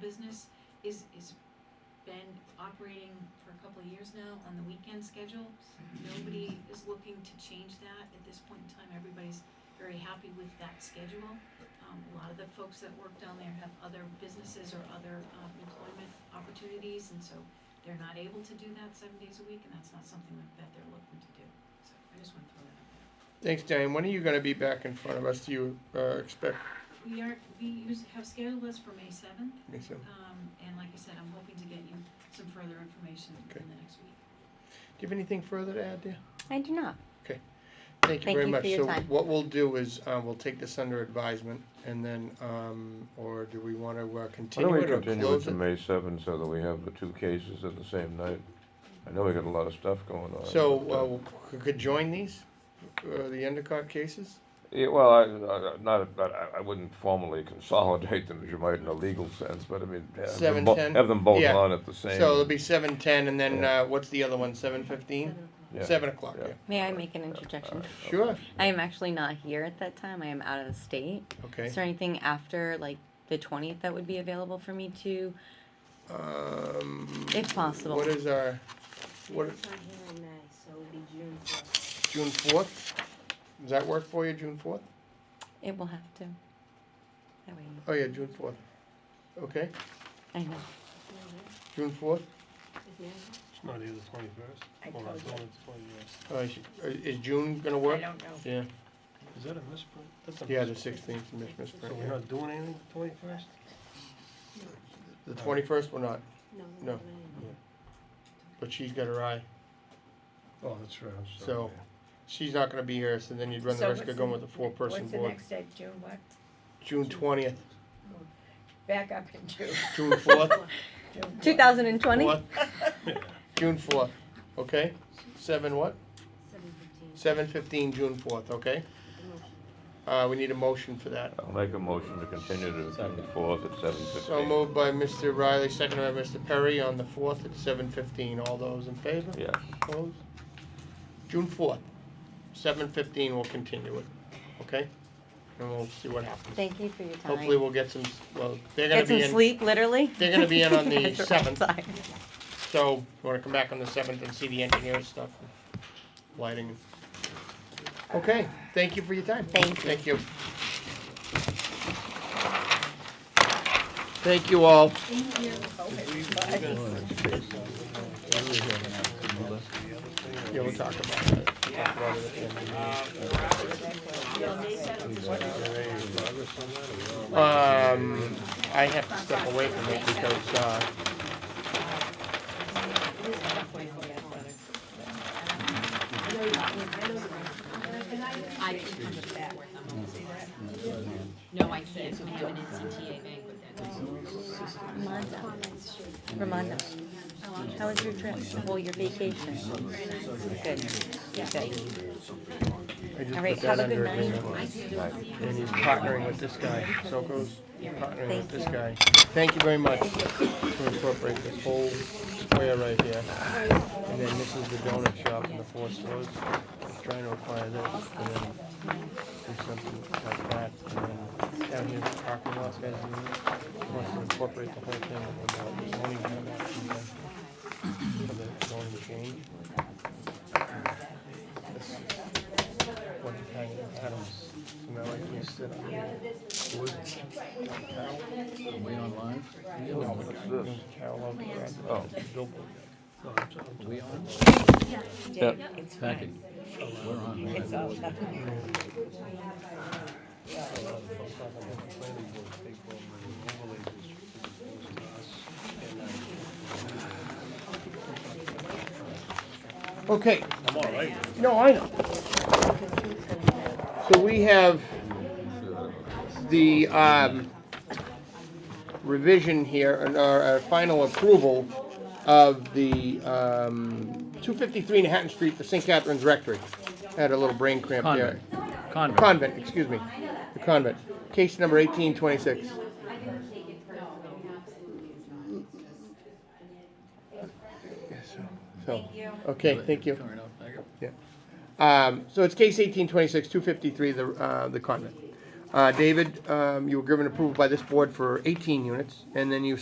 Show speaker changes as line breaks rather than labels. business is, is been operating for a couple of years now on the weekend schedule. Nobody is looking to change that at this point in time. Everybody's very happy with that schedule. Um, a lot of the folks that work down there have other businesses or other, um, employment opportunities, and so they're not able to do that seven days a week, and that's not something that- that they're looking to do. So I just want to throw that out there.
Thanks, Diane. When are you gonna be back in front of us? Do you, uh, expect,
We are, we use, have scheduled us for May seventh,
me so?
um, and like I said, I'm hoping to get you some further information
Okay.
in the next week.
Do you have anything further to add there?
I do not.
Thank you
Thank
very
you
much.
for your
So
time.
what we'll do is, uh, we'll take this under advisement and then, um, or do we wanna uh,
Why don't
continue
we
it or
continue it
close
to
it?
May seventh so that we have the two cases at the same night? I know we got a lot of stuff going on. but, uh,
So, uh, c- could join these, uh, the Endicott cases?
Yeah, well, I, I- I- not, but I, I wouldn't formally consolidate them as you might in a legal sense, but I mean, have them bo-
7:10?
have them both
Yeah.
on at the
So
same.
it'll be seven ten and then,
Yeah.
uh, what's the other one, seven fifteen?
yeah,
Seven o'clock, yeah.
May I make an interjection?
Sure,
I am actually not here at that time. I am out of the state.
okay.
Is there anything after like the 20th that would be available for me to,
Um,
if possible?
what is our, what,
It's not here in May, so it'll be June first.
June fourth? Does that work for you, June fourth?
it will have to. That way,
Oh, yeah, June fourth. Okay,
I know.
June fourth?
It's not either twenty-first.
I
Hold on,
told
it's only
you.
the 21st.
Uh, is- is June gonna work?
I don't know.
Yeah,
Is that a misprint? That's a
yeah, the
misprint.
sixteenth, Miss, Miss
So we're not doing anything the twenty-first?
The twenty-first, we're not, No.
No.
but she's got her eye.
Oh, that's right, I'm sorry.
So-
yeah.
She's not gonna be here, so then you'd run the
So
risk of
what's
going
the-
with a four-person
What's the
board.
next date, June what?
June twentieth,
Back up in June.
June fourth,
2020?
fourth, June fourth, okay? Seven what?
Seven fifteen.
Seven fifteen, June fourth, okay? Uh, we need a motion for that.
I'll make a motion to continue to the fourth at seven fifteen.
So moved by Mr. Riley, seconded by Mr. Perry on the fourth at seven fifteen. All those in favor?
Yeah.
Opposed? June fourth, seven fifteen, we'll continue it, okay? And we'll see what happens.
Thank you for your time.
Hopefully, we'll get some, well, they're gonna
Get
be
some
in,
sleep, literally.
they're gonna be in on the
Guys are
7th.
outside.
so, you wanna come back on the seventh and see the engineer stuff, lighting. Okay, thank you for your time.
Thank you.
Thank you. Thank you all. Yeah, we'll talk about it. Um, I have to step away from it because, uh,
I can come back. No, I can't, I have an NCTA banquet that night.
Ramonda, how was your trip? Well, your vacation. Good. Good.
I just
All right,
put that
have a
under
good
agreement. And he's partnering with this guy, Soko's partnering with
Thank
this
you.
guy. Thank you very much to incorporate this whole square right here. And then this is the donut shop and the four stores. He's Trying to acquire this and then do something like that. And then down here, the parking lot guys, he wants to incorporate the whole thing with the zoning bylaws and then for the zoning change. What kind of atoms? You know, like you sit up here.
Way online?
Oh,
No, I'm sorry.
Are we on?
yeah,
It's
Packet.
fine.
We're on. right?
It's all done.
Okay,
I'm all right.
no, I know. So we have the, um, revision here, and our, our final approval of the, um, two fifty-three Manhattan Street, the St. Catherine's Rectory. Had a little brain cramp there.
Convent. Convent.
Convent, excuse me, the convent, case number eighteen twenty-six. Thank you. Okay, thank you.
Coming up, thank you.
Um, so it's case eighteen twenty-six, two fifty-three, the, uh, the convent. Uh, David, um, you were given approval by this board for eighteen units, and then you